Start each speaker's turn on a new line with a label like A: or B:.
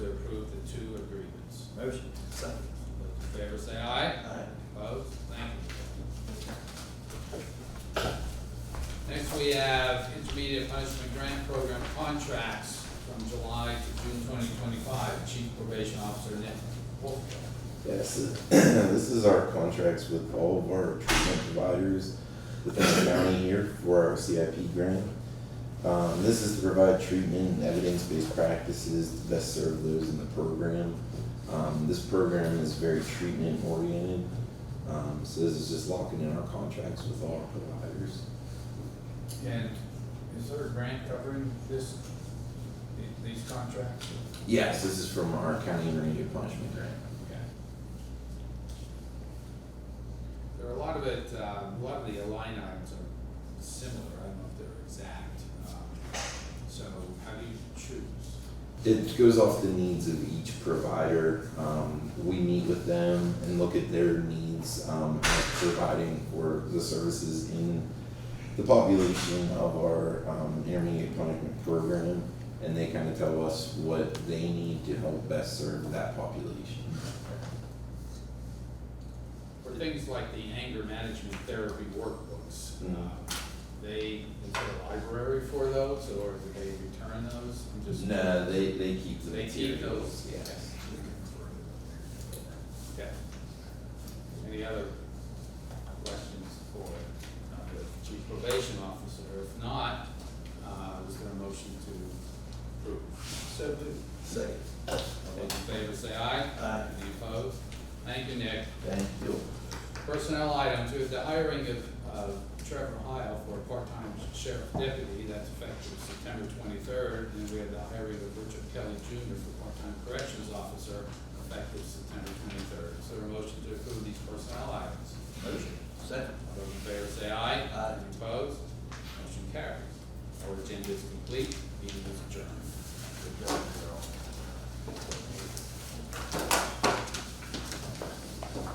A: Motion. Second.
B: Those in favor say aye.
A: Aye.
B: Opposed? Thank you. Next, we have intermediate punishment grant program contracts from July to June twenty twenty-five. Chief Probation Officer Nick Wolf.
C: Yes, this is our contracts with all of our treatment providers within the county here for our CIP grant. Um, this is to provide treatment and evidence-based practices to best serve those in the program. Um, this program is very treatment-oriented, um, so this is just locking in our contracts with all our providers.
B: And is there a grant covering this, these contracts?
C: Yes, this is from our county intermediate punishment grant.
B: Okay. There are a lot of it, um, a lot of the line items are similar, I don't know if they're exact, um, so how do you choose?
C: It goes off the needs of each provider. Um, we meet with them and look at their needs um, of providing for the services in the population of our um, intermediate punishment program, and they kind of tell us what they need to help best serve that population.
B: For things like the anger management therapy workbooks,
C: Mm.
B: um, they, is there a library for those, or do they return those? I'm just-
C: No, they, they keep the
B: They keep those?
C: materials. Yes.
B: Okay. Any other questions for uh, the chief probation officer? If not, uh, is there a motion to approve?
A: So moved. Second.
B: All those in favor say aye.
A: Aye.
B: Any opposed? Thank you, Nick.
A: Thank you.
B: Personnel items, we have the hiring of, of Trevor Hile for a part-time sheriff deputy, that's effective September twenty-third. And we have the hiring of Richard Kelly Junior for part-time corrections officer, effective September twenty-third. Is there a motion to approve these personnel items?
A: Motion. Second.
B: All those in favor say aye.
A: Aye.
B: Any Opposed? Motion carries. Our agenda is complete, meeting is adjourned.
A: Good job.